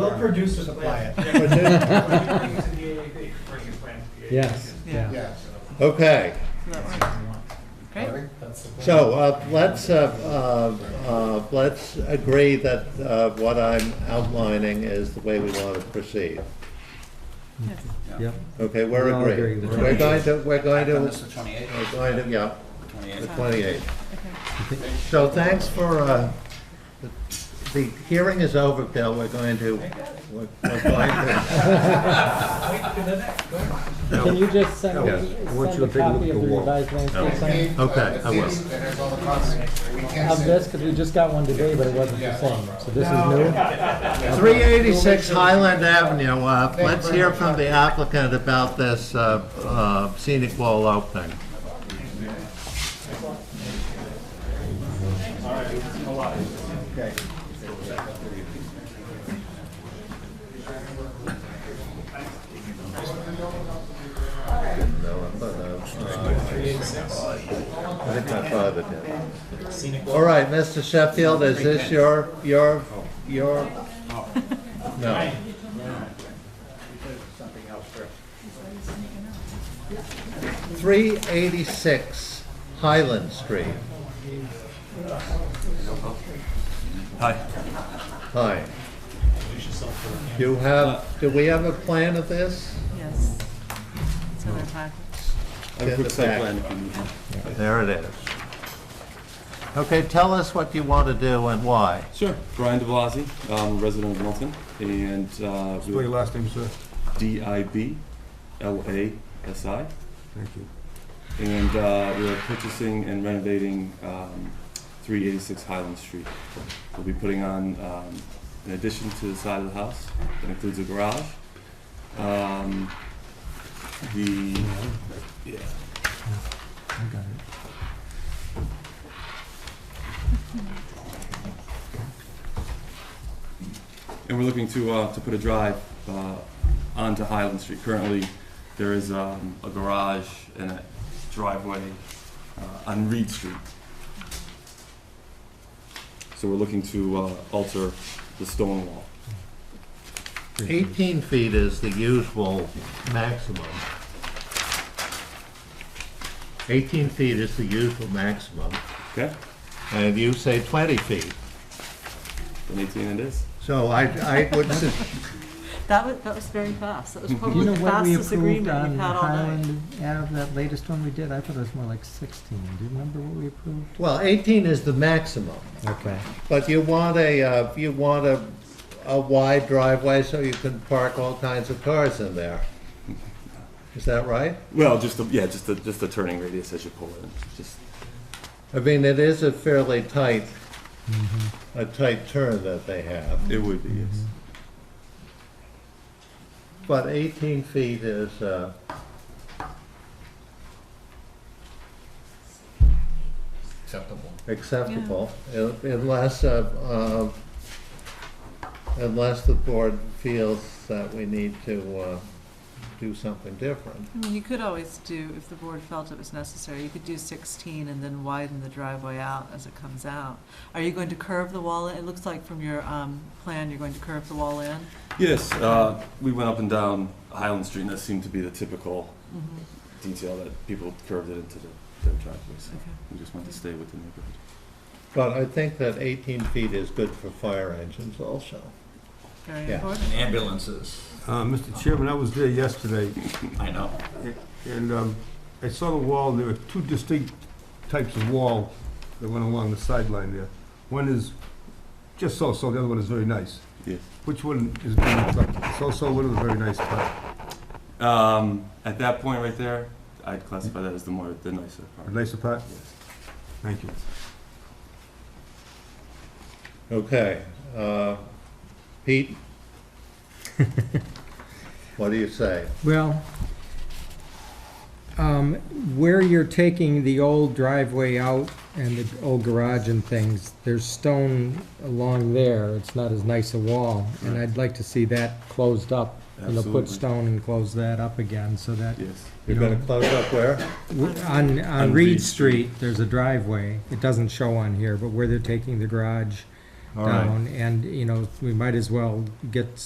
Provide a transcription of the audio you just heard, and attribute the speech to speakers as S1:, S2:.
S1: They'll produce a plan.
S2: But then-
S1: Bring it to the AAB, bring your plan to the AAB.
S3: Yes,
S4: Yeah.
S3: yeah.
S2: Okay,
S4: Great.
S2: so uh, let's, uh, uh, uh, let's agree that uh, what I'm outlining is the way we want to proceed.
S4: Yes.
S3: Yep.
S2: Okay,
S3: We're all
S2: we're
S3: agreeing
S2: agreed.
S3: the
S2: We're going to, we're going
S5: Done
S2: to,
S5: this the twenty-eighth,
S2: we're going to, yeah, the
S5: twenty-eighth.
S2: 28th.
S4: Okay.
S2: So thanks for, uh, the- the hearing is over, Bill, we're going to, we're we're going to,
S1: Wait for the next, go ahead.
S6: Can you just send
S2: Yeah.
S6: me,
S3: Once
S6: send
S3: you
S6: a
S3: take a
S6: copy of the
S3: walk.
S6: revised landscape plan
S2: Okay, I will.
S5: That has all the costs, we can't
S6: of
S5: say-
S6: this? Because we just got one today, but it wasn't the same. So this is new?
S2: 386 Highland Avenue, uh, let's hear from the applicant about this uh, uh, scenic wall opening. I think my father did. All right, Mr. Sheffield, is this your, your, your? No. Three eighty-six Highland Street.
S5: Hi,
S2: Hi. You have, do we have a plan of this?
S4: Yes. It's in their package.
S2: Get the back.
S5: plan.
S2: There it is. Okay, tell us what you want to do and why.
S7: Sure. Brian DeBlasi, um, resident of Milton, and uh,
S8: Spell your last name, sir.
S7: D I B L A S I.
S8: Thank you.
S7: And uh, we are purchasing and renovating um, 386 Highland Street. We'll be putting on um, an addition to the side of the house that includes a garage. Um, the yeah.
S8: I got it.
S7: And we're looking to, uh, to put a drive, uh, onto Highland Street. Currently, there is, um, a garage and a driveway, uh, on Reed Street. So we're looking to, uh, alter the stone wall.
S2: Eighteen feet is the usual maximum. Eighteen feet is the usual maximum,
S7: Okay?
S2: and you say twenty feet.
S7: An eighteen it is.
S2: So I, I would, su-
S4: That was, that was very fast. That was
S6: Do you
S4: probably
S6: know
S4: the
S6: what we
S4: fastest
S6: approved
S4: agreement
S6: on
S4: we've had all night.
S6: Highland Ave, that latest one we did? I thought it was more like 16. Do you remember what we approved?
S2: well, eighteen is the maximum,
S6: Okay.
S2: but you want a, uh, you want a, a wide driveway so you can park all kinds of cars in there. Is that right?
S7: Well, just the, yeah, just the, just the turning radius as you pull in, just,
S2: I mean, it is a fairly tight, a tight turn that they have,
S7: it would be, yes.
S2: but eighteen feet is, uh,
S5: Acceptable.
S2: acceptable, un- unless, uh, uh, unless the board feels that we need to uh, do something different.
S4: I mean, you could always do, if the board felt it was necessary, you could do sixteen and then widen the driveway out as it comes out. Are you going to curve the wall in? It looks like from your, um, plan, you're going to curve the wall in.
S7: Yes, uh, we went up and down Highland Street, and that seemed to be the typical
S6: Mm-hmm.
S7: detail that people curved it into the- their driveways. so
S4: Okay.
S7: We just wanted to stay with the neighborhood.
S2: But I think that 18 feet is good for fire engines also.
S4: Very
S2: Yeah.
S4: important.
S5: And ambulances,
S8: Uh, Mr. Chairman, I was there yesterday,
S5: I know.
S8: and um, I saw the wall, there were two distinct types of wall that went along the sideline there. One is just so-so, the other one is very nice.
S7: Yes.
S8: Which one is being reflected? So-so, one is very nice, but
S7: Um, at that point right there, I'd classify that as the more, the nicer part.
S8: the nicer part?
S7: Yes.
S8: Thank you.
S2: Okay, uh, Pete? What do you say?
S6: Well, um, where you're taking the old driveway out and the old garage and things, there's stone along there. It's not as nice a wall. And I'd like to see that closed up. And they'll
S7: Absolutely.
S6: put stone and close that up again so that
S7: Yes.
S2: You're going to close up where?
S6: W- On, on Reed Street, there's a driveway, it doesn't show on here, but where they're taking the garage
S2: All right.
S6: down, and, you know, we might as well get